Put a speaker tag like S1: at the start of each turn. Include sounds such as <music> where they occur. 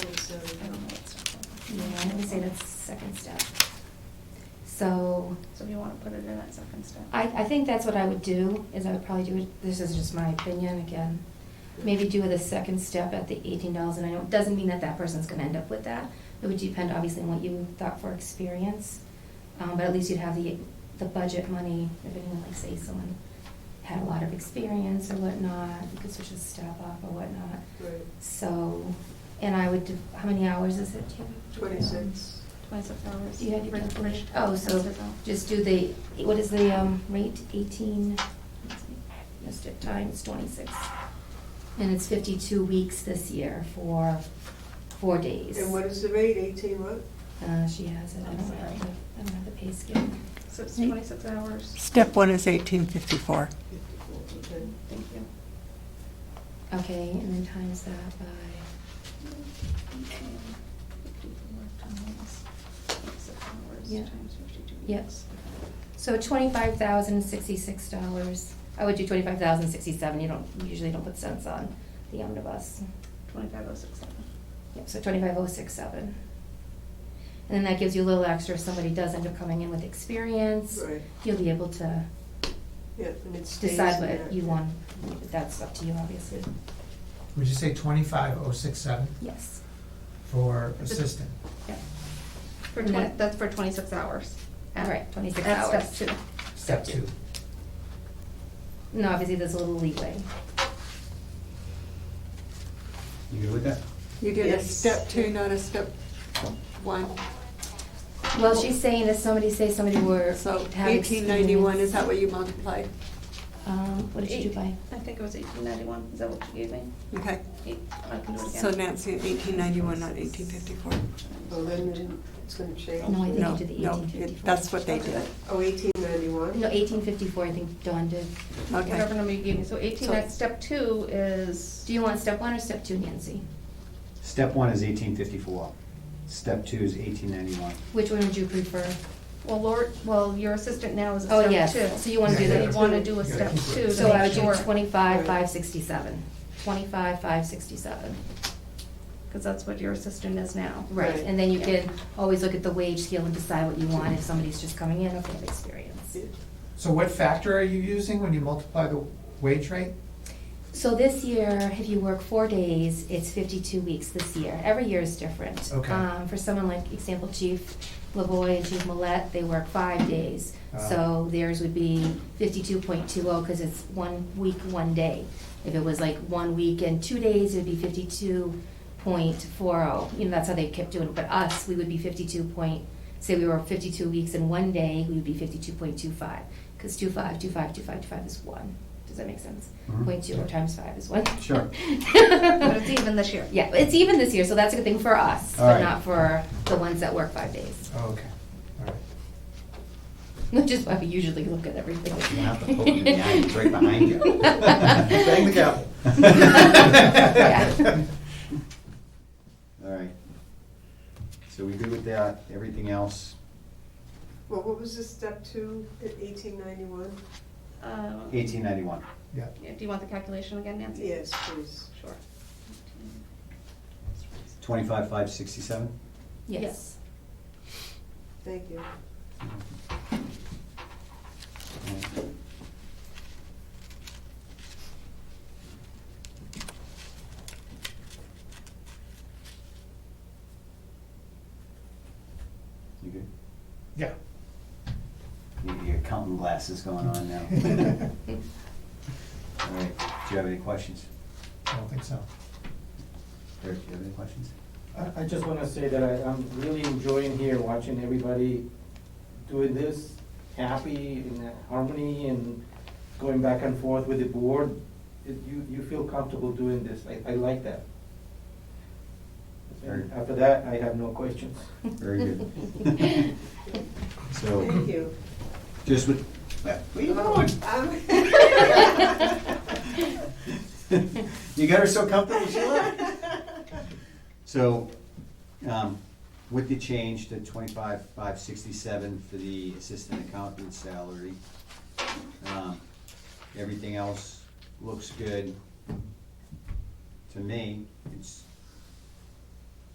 S1: Yeah, I would say that's second step. So,
S2: So we want to put it in that second step.
S1: I, I think that's what I would do, is I would probably do, it- this is just my opinion again. Maybe do the second step at the eighteen dollars an hour, doesn't mean that that person's gonna end up with that. It would depend obviously on what you thought for experience, um, but at least you'd have the, the budget money, if anyone, like say someone had a lot of experience or whatnot, you could switch a step up or whatnot.
S3: Right.
S1: So, and I would, do- how many hours is it? Tim?
S3: Twenty-six.
S2: Twenty-six hours.
S1: Do you have your
S2: Right,
S1: calculation?
S2: right.
S1: Oh, so
S2: That's all.
S1: just do the, what is the um, rate, eighteen, missed it, times twenty-six. And it's fifty-two weeks this year for four days.
S3: And what is the rate, eighteen what?
S1: Uh, she has it, I
S2: I'm
S1: don't have
S2: sorry.
S1: the, I don't have the pay scale.
S2: So it's twenty-six hours.
S4: Step one is 1854.
S3: Fifty-four, okay.
S2: Thank you.
S1: Okay, and then times that by,
S2: Fifty-four times Twenty-six hours
S1: Yeah.
S2: times fifty-two weeks.
S1: Yep. so twenty-five thousand sixty-six dollars. I would do twenty-five thousand sixty-seven, you don't, you usually don't put cents on the omnibus.
S2: Twenty-five oh six seven.
S1: Yep, so twenty-five oh six seven. And then that gives you a little extra if somebody does end up coming in with experience.
S3: Right,
S1: You'll be able to
S3: yeah, and it stays in
S1: decide what
S3: that.
S1: you want. That's up to you, obviously.
S5: Would you say twenty-five oh six seven
S1: Yes.
S5: for assistant?
S1: Yep.
S2: For
S1: And
S2: twenty,
S1: that-
S2: that's for twenty-six hours.
S1: All right, 26
S2: That's
S1: hours.
S2: step two.
S5: Step two.
S1: No, obviously, there's a little leeway.
S6: You good with that?
S7: You did a
S3: Yes.
S7: step two, not a step one.
S1: Well, she's saying if somebody, say somebody were.
S7: So
S1: to have
S7: eighteen ninety-one, is
S1: experience-
S7: that what you multiplied?
S1: Um, what did you do by?
S2: I think it was eighteen ninety-one. Is that what you gave me?
S7: Okay,
S2: Eight, I can do it again.
S7: so Nancy, eighteen ninety-one, not eighteen fifty-four.
S3: Oh, then it didn't- it's gonna change.
S1: No, I think
S7: No,
S1: you did the
S7: no,
S1: eighteen
S7: it-
S1: fifty-four.
S7: that's what they did.
S2: Okay.
S3: Oh, eighteen ninety-one?
S1: No, eighteen fifty-four, I think Dawn did.
S2: Whatever
S7: Okay,
S2: number you gave me. So eighteen,
S7: So-
S2: that's step two is.
S1: Do you want step one or step two, Nancy?
S6: Step one is eighteen fifty-four. Step two is eighteen ninety-one.
S1: Which one would you prefer?
S2: Well, Lord, well, your assistant now is a
S1: Oh,
S2: step two.
S1: yes. So you wanna
S5: do
S2: So
S5: that.
S2: you wanna do a
S5: Yeah.
S2: step two to
S1: So I
S2: make
S1: would do
S2: sure,
S1: twenty-five,
S3: Right.
S1: five sixty-seven. Twenty-five, five sixty-seven.
S2: cause that's what your assistant is now.
S1: Right,
S3: Right.
S1: and then you
S2: Yeah.
S1: can always look at the wage scale and decide what you want if somebody's just coming in, okay, experience.
S5: So what factor are you using when you multiply the wage rate?
S1: So this year, if you work four days, it's fifty-two weeks this year. Every year is different.
S5: Okay.
S1: Um, for someone like, example, Chief LaVoy and Chief Millet, they work five days. So theirs would be fifty-two point two oh, cause it's one week, one day. If it was like one week and two days, it would be fifty-two point four oh. You know, that's how they kept doing it. But us, we would be fifty-two point, say we were fifty-two weeks and one day, we would be fifty-two point two five. Cause two five, two five, two five, two five is one. Does that make sense?
S6: Mhm.
S1: Point two times five is one. <laughs>
S6: Sure.
S2: But it's even this year.
S1: Yeah, it's even this year, so that's a good thing for us,
S6: All
S1: but
S6: right.
S1: not for the ones that work five days. <laughs>
S5: Oh, okay, all right.
S1: Which is why we usually look at everything.
S6: You have to poke it in the eye,
S1: <laughs>
S6: it's right behind you. Bang
S5: the gavel.
S1: Yeah.
S6: <laughs> All right. So we good with that? Everything else?
S3: Well, what was the step two at eighteen ninety-one?
S2: Um,
S6: Eighteen ninety-one.
S5: Yeah,
S2: yeah, Do you want the calculation again, Nancy?
S3: Yes, please.
S2: Sure.
S6: Twenty-five, five sixty-seven?
S1: Yes.
S3: Thank you.
S6: You good?
S5: yeah.
S6: You got Your accounting glasses going on <laughs> now. All right, do you have any questions?
S5: <laughs> I don't think so.
S6: Eric, do you have any questions?
S8: I, I just wanna say that I, I'm really enjoying here, watching everybody doing this, happy in harmony and going back and forth with the board. It- You, you feel comfortable doing this, I, I like that.
S6: Very-
S8: And after that, I have no questions.
S6: Very good.
S1: <laughs>
S3: Thank
S6: So,
S3: you.
S6: just with. What are you
S3: <laughs>
S6: doing? <laughs> You got her so comfortable, she left.
S3: <laughs>
S6: So, um, with the change to twenty-five, five sixty-seven for the assistant accountant salary, um, everything else looks good. To me, it's